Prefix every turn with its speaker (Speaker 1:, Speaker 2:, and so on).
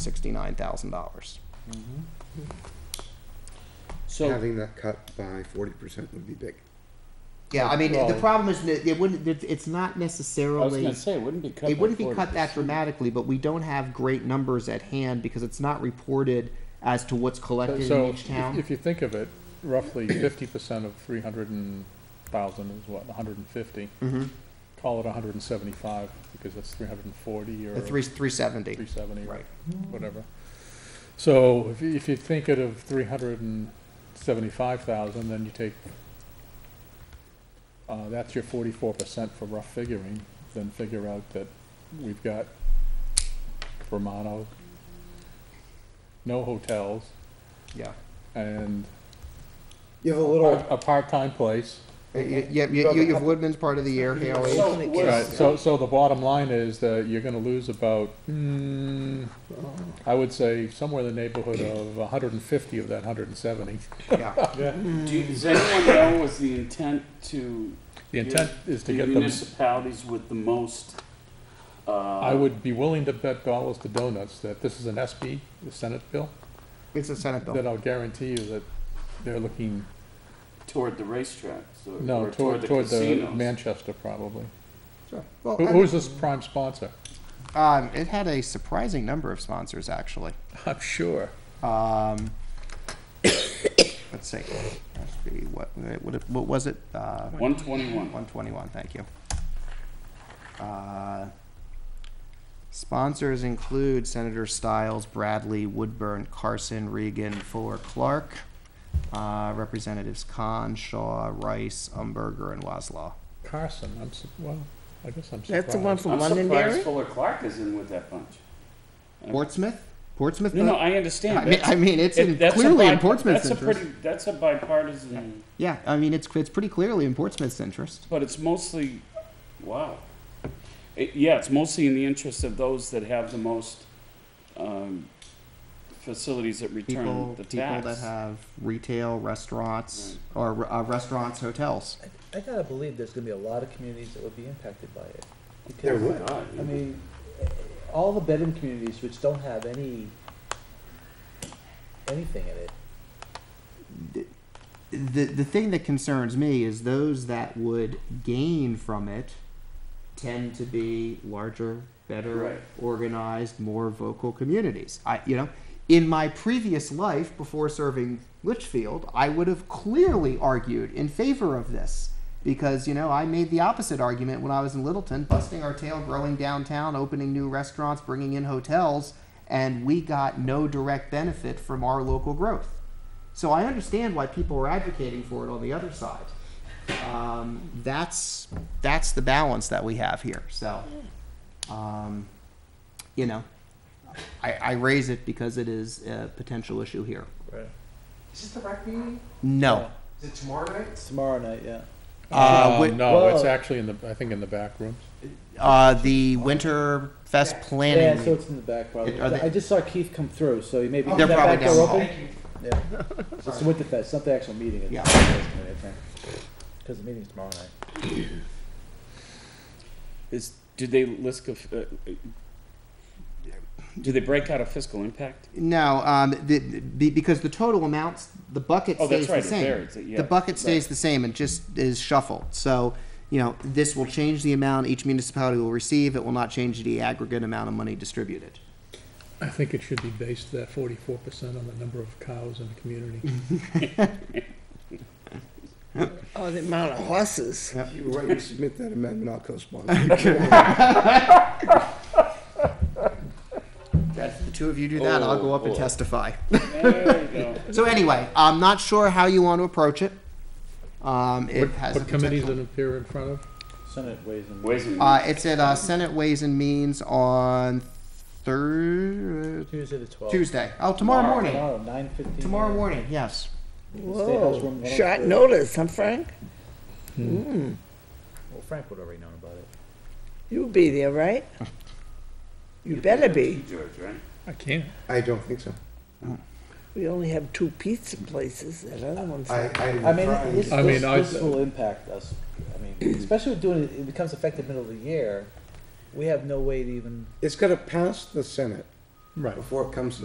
Speaker 1: sixty-nine thousand dollars.
Speaker 2: So,
Speaker 3: Having that cut by forty percent would be big.
Speaker 1: Yeah, I mean, the
Speaker 2: Well-
Speaker 1: problem is that it wouldn't, it- it's not
Speaker 2: I was
Speaker 1: necessarily,
Speaker 2: gonna say, it wouldn't be cut
Speaker 1: it
Speaker 2: by
Speaker 1: wouldn't be
Speaker 2: 40%.
Speaker 1: cut that dramatically, but we don't have great numbers at hand because it's not reported as to what's collected
Speaker 4: So,
Speaker 1: in each
Speaker 4: if-
Speaker 1: town.
Speaker 4: If you think of it, roughly fifty percent of three hundred and thousand is what, hundred and fifty?
Speaker 1: Mhm.
Speaker 4: Call it hundred and seventy-five, because that's three hundred and forty or
Speaker 1: The three, three
Speaker 4: three
Speaker 1: seventy,
Speaker 4: seventy or
Speaker 1: right.
Speaker 4: whatever. So if you, if you think it of three hundred and seventy-five thousand, then you take, uh, that's your forty-four percent for rough figuring, then figure out that we've got Vermont, no hotels,
Speaker 1: yeah.
Speaker 4: and
Speaker 3: You have a
Speaker 4: Part- A part-time place,
Speaker 1: Yeah, yeah, you, you have Woodman's part of the year, Haley.
Speaker 2: So what-
Speaker 4: right, so, so the bottom line is that you're gonna lose about, mm, I would say somewhere in the neighborhood of hundred and fifty of that hundred and seventy.
Speaker 1: Yeah,
Speaker 2: do you- does anyone know was the intent to
Speaker 4: The intent is to
Speaker 2: the
Speaker 4: get them,
Speaker 2: municipalities with the most? uh,
Speaker 4: I would be willing to bet dollars to donuts that this is an SB, the Senate bill,
Speaker 1: it's a Senate bill.
Speaker 4: that I'll guarantee you that they're looking,
Speaker 2: Toward the racetrack, so,
Speaker 4: no,
Speaker 2: or toward
Speaker 4: toward,
Speaker 2: the
Speaker 4: toward the
Speaker 2: casinos.
Speaker 4: Manchester probably.
Speaker 1: Sure. Well,
Speaker 4: Who,
Speaker 1: I-
Speaker 4: who's this prime sponsor?
Speaker 1: um, it had a surprising number of sponsors, actually.
Speaker 4: I'm sure.
Speaker 1: Um, let's see, That's the- what, what, it- what was it? Uh,
Speaker 2: One twenty-one.
Speaker 1: one twenty-one, thank you. Uh, Sponsors include Senator Stiles, Bradley, Woodburn, Carson, Regan, Fuller, Clark, uh, Representatives Khan, Shaw, Rice, Umberger, and Waslaw.
Speaker 4: Carson, I'm, su- well, I guess I'm surprised.
Speaker 5: That's the one from
Speaker 2: I'm surprised
Speaker 5: Londonderry?
Speaker 2: Fuller Clark is in with that bunch.
Speaker 1: Portsmouth? Portsmouth?
Speaker 2: No, no,
Speaker 1: uh, I
Speaker 2: I understand.
Speaker 1: mean, I
Speaker 2: That's-
Speaker 1: mean, it's in-
Speaker 2: it- that's a
Speaker 1: clearly in
Speaker 2: bi-
Speaker 1: Portsmouth's
Speaker 2: That's a
Speaker 1: interest.
Speaker 2: pretty, that's a bipartisan,
Speaker 1: Yeah, I mean, it's, it's pretty clearly in Portsmouth's interest.
Speaker 2: but it's mostly, wow. It, yeah, it's mostly in the interest of those that have the most, um, facilities that return
Speaker 1: People,
Speaker 2: the
Speaker 1: people that
Speaker 2: tax.
Speaker 1: have retail, restaurants, or uh, restaurants, hotels.
Speaker 6: I, I gotta believe there's gonna be a lot of communities that would be impacted by it. Because,
Speaker 3: There would.
Speaker 2: God,
Speaker 6: I mean, eh, all the bedroom communities which don't have any, anything in it,
Speaker 1: the the thing that concerns me is those that would gain from it tend to be larger, better
Speaker 2: Right.
Speaker 1: organized, more vocal communities. I you know, in my previous life before serving Litchfield, I would have clearly argued in favor of this because you know I made the opposite argument when I was in Littleton, busting our tail, growing downtown, opening new restaurants, bringing in hotels, and we got no direct benefit from our local growth. So I understand why people are advocating for it on the other side. Um, that's that's the balance that we have here. So, um, you know, I, I raise it because it is a potential issue here.
Speaker 6: right?
Speaker 7: Is this the rec meeting?
Speaker 1: No,
Speaker 7: Is it tomorrow night?
Speaker 6: Tomorrow night, yeah.
Speaker 1: Uh,
Speaker 4: Uh,
Speaker 1: wi-
Speaker 4: no, it's
Speaker 6: Whoa.
Speaker 4: actually in the, I think in the back rooms.
Speaker 1: uh, the Winter Fest planning.
Speaker 6: Yeah, so it's in the back probably.
Speaker 1: It- are they-
Speaker 6: I just saw Keith come through, so he maybe.
Speaker 1: They're
Speaker 6: is that
Speaker 1: probably
Speaker 6: back
Speaker 1: down
Speaker 6: door
Speaker 1: the
Speaker 6: open?
Speaker 1: hall.
Speaker 6: Yeah. It's with the fest, it's not the actual meeting. it's
Speaker 1: Yeah.
Speaker 6: the fest committee, I think. Cause the meeting's tomorrow night.
Speaker 2: Is, did they list, a f- uh, uh, do they break out a fiscal impact?
Speaker 1: No, um, the, the, because the total amounts, the bucket
Speaker 2: Oh, that's
Speaker 1: stays
Speaker 2: right,
Speaker 1: the
Speaker 2: it
Speaker 1: same.
Speaker 2: varies, yeah,
Speaker 1: the bucket
Speaker 2: right.
Speaker 1: stays the same and just is shuffled. So, you know, this will change the amount each municipality will receive. It will not change the aggregate amount of money distributed.
Speaker 4: I think it should be based that forty-four percent on the number of cows in the community.
Speaker 5: Oh, the amount of horses.
Speaker 3: You're right, you submit that amendment, I'll co-sponsor.
Speaker 1: If the two of you do that, I'll go up and testify.
Speaker 2: There you go.
Speaker 1: so anyway, I'm not sure how you want to approach it. Um, it
Speaker 4: What,
Speaker 1: has
Speaker 4: what
Speaker 1: a
Speaker 4: committees
Speaker 1: potential-
Speaker 4: it appear in front of?
Speaker 6: Senate weighs in.
Speaker 2: Ways and
Speaker 1: Uh, it's at uh, Senate Ways and Means on Thursday,
Speaker 6: Tuesday the twelfth.
Speaker 1: Tuesday. Oh, tomorrow morning.
Speaker 6: Tomorrow, nine fifteen.
Speaker 1: Tomorrow morning. Yes.
Speaker 6: State House
Speaker 5: Whoa,
Speaker 6: room
Speaker 5: short
Speaker 6: 103.
Speaker 5: notice, huh, Frank?
Speaker 6: Well, Frank would already known about it.
Speaker 5: You'll be there, right? You better be.
Speaker 2: George, right?
Speaker 4: I can't.
Speaker 3: I don't think so.
Speaker 5: We only have two pizza places, that other one's.
Speaker 3: I,
Speaker 6: I
Speaker 3: I
Speaker 6: mean,
Speaker 3: will
Speaker 6: this,
Speaker 3: try.
Speaker 4: I mean,
Speaker 6: this,
Speaker 4: I-
Speaker 6: this will impact us. I mean, especially with doing it, it becomes effective middle of the year. We have no way to even.
Speaker 3: It's gotta pass the Senate
Speaker 4: Right.
Speaker 3: before it comes to